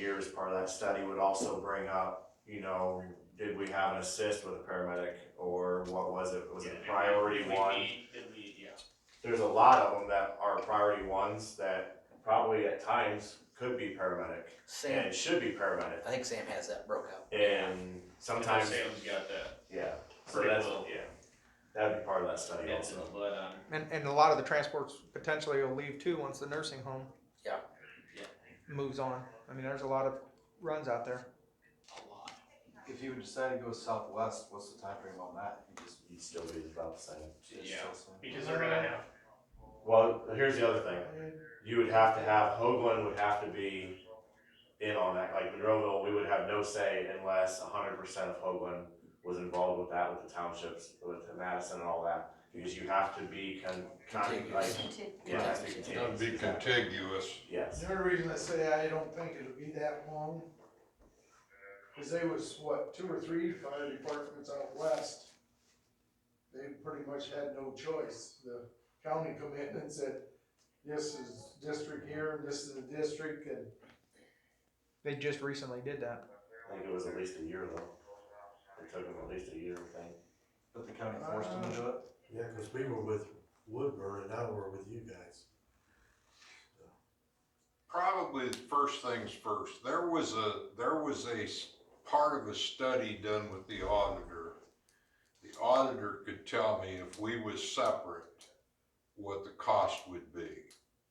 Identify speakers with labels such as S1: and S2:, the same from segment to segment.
S1: years part of that study would also bring up, you know, did we have an assist with a paramedic or what was it? Was it
S2: Yeah,
S1: priority
S2: we- we
S1: one?
S2: need- we need- yeah.
S1: There's a lot of them that are priority ones that probably at times could be paramedic
S3: Sam,
S1: and should be paramedic.
S3: I think Sam has that broke out.
S1: And sometimes,
S2: Sam's got that,
S1: yeah, so
S2: Pretty
S1: that's,
S2: well.
S1: yeah, that'd be part of that study
S2: it's in the
S1: also.
S2: blood on it.
S4: And, and a lot of the transports potentially will leave too once the nursing home.
S3: Yeah.
S2: Yeah.
S4: Moves on. I mean, there's a lot of runs out there.
S2: a lot.
S5: If you would decide to go southwest, what's the time frame on that? You just,
S1: You'd still be about the same.
S5: it's
S2: Yeah.
S5: still same.
S2: Because they're gonna have,
S1: Well, here's the other thing. You would have to have, Hoagland would have to be in on that, like Monroeville, we would have no say unless hundred percent of Hoagland was involved with that, with the townships, with the Madison and all that. Because you have to be con, con, like,
S3: Contiguous.
S1: yeah, it has to be
S3: Contiguous.
S6: It's gonna be
S1: contiguous.
S6: contiguous.
S1: Yes,
S7: The only reason I say I don't think it'll be that long is they was, what, two or three fire departments out west. They pretty much had no choice. The county come in and said, this is district here, and this is the district, and
S4: They just recently did that.
S1: I think it was at least a year though. It took them at least a year, I think.
S5: But the county forced them to do it?
S8: Yeah, because we were with Woodburn and now we're with you guys.
S6: Probably first things first, there was a, there was a s- part of a study done with the auditor. The auditor could tell me if we was separate, what the cost would be.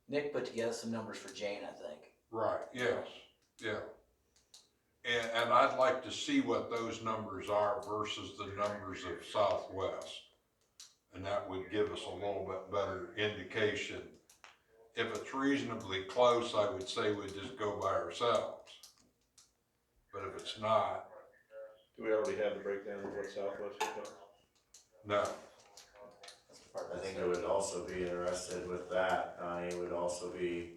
S3: Nick put together some numbers for Jane, I think.
S6: Right, yes, yeah. And, and I'd like to see what those numbers are versus the numbers of Southwest. And that would give us a little bit better indication. If it's reasonably close, I would say we'd just go by ourselves. But if it's not,
S9: Do we already have the breakdown of what Southwest is doing?
S6: no,
S3: That's the part
S1: I
S3: that's-
S1: think I would also be interested with that, Donnie, would also be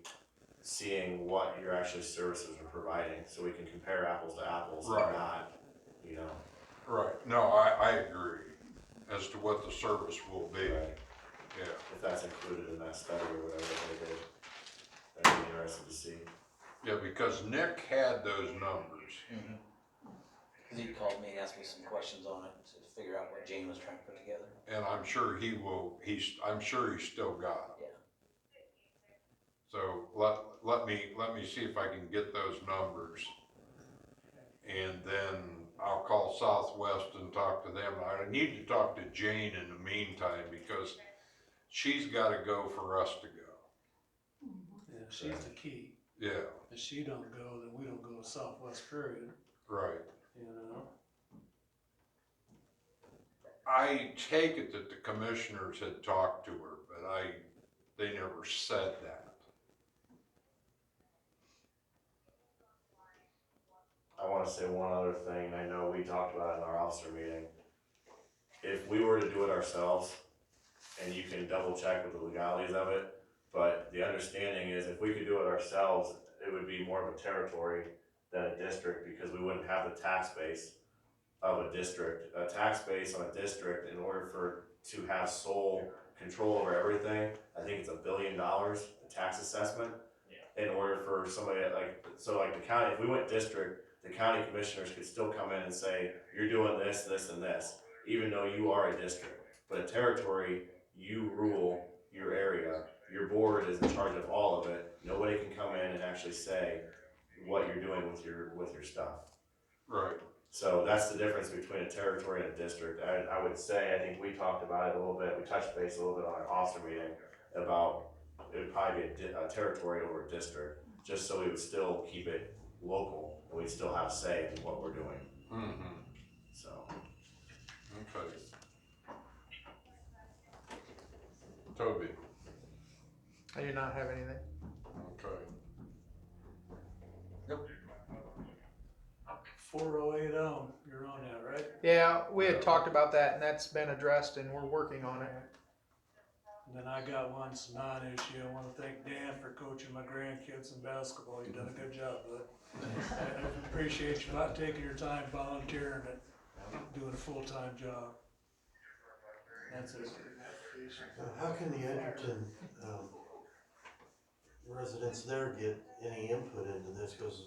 S1: seeing what your actually services are providing, so we can compare apples to apples and
S6: Right.
S1: not, you know.
S6: right, no, I, I agree as to what the service will be,
S1: Right.
S6: yeah.
S1: If that's included in that study or whatever they did, that'd be interesting to see.
S6: Yeah, because Nick had those numbers.
S3: Mhm. 'Cause he called me and asked me some questions on it to figure out what Jane was trying to put together.
S6: And I'm sure he will, he's, I'm sure he's still got them. So let, let me, let me see if I can get those numbers. And then I'll call Southwest and talk to them. I need to talk to Jane in the meantime because she's gotta go for us to go.
S7: Yeah, she's the key.
S6: Yeah,
S7: If she don't go, then we don't go to Southwest period,
S6: right.
S7: you know?
S6: I take it that the commissioners had talked to her, but I, they never said that.
S1: I wanna say one other thing, and I know we talked about it in our officer meeting. If we were to do it ourselves, and you can double check with the legalities of it, but the understanding is if we could do it ourselves, it would be more of a territory than a district, because we wouldn't have the tax base of a district. A tax base on a district, in order for, to have sole control over everything, I think it's a billion dollars, the tax assessment. In order for somebody like, so like the county, if we went district, the county commissioners could still come in and say, you're doing this, this, and this, even though you are a district. But a territory, you rule your area, your board is in charge of all of it, nobody can come in and actually say what you're doing with your, with your stuff.
S6: Right.
S1: So that's the difference between a territory and a district. I, I would say, I think we talked about it a little bit, we touched base a little bit on our officer meeting about it would probably be a, di- a territory over a district, just so we would still keep it local and we'd still have say in what we're doing,
S6: Mm-hmm.
S1: so.
S6: Okay. Toby,
S4: I do not have anything.
S6: okay.
S7: Four oh eight oh, you're on that, right?
S4: Yeah, we had talked about that and that's been addressed and we're working on it.
S7: And then I got one non-issue. I wanna thank Dan for coaching my grandkids in basketball. You've done a good job, bud. I Appreciate you not taking your time volunteering and doing a full-time job. That's it.
S8: Now, How can the Edgerton, um, residents there get any input into this? Because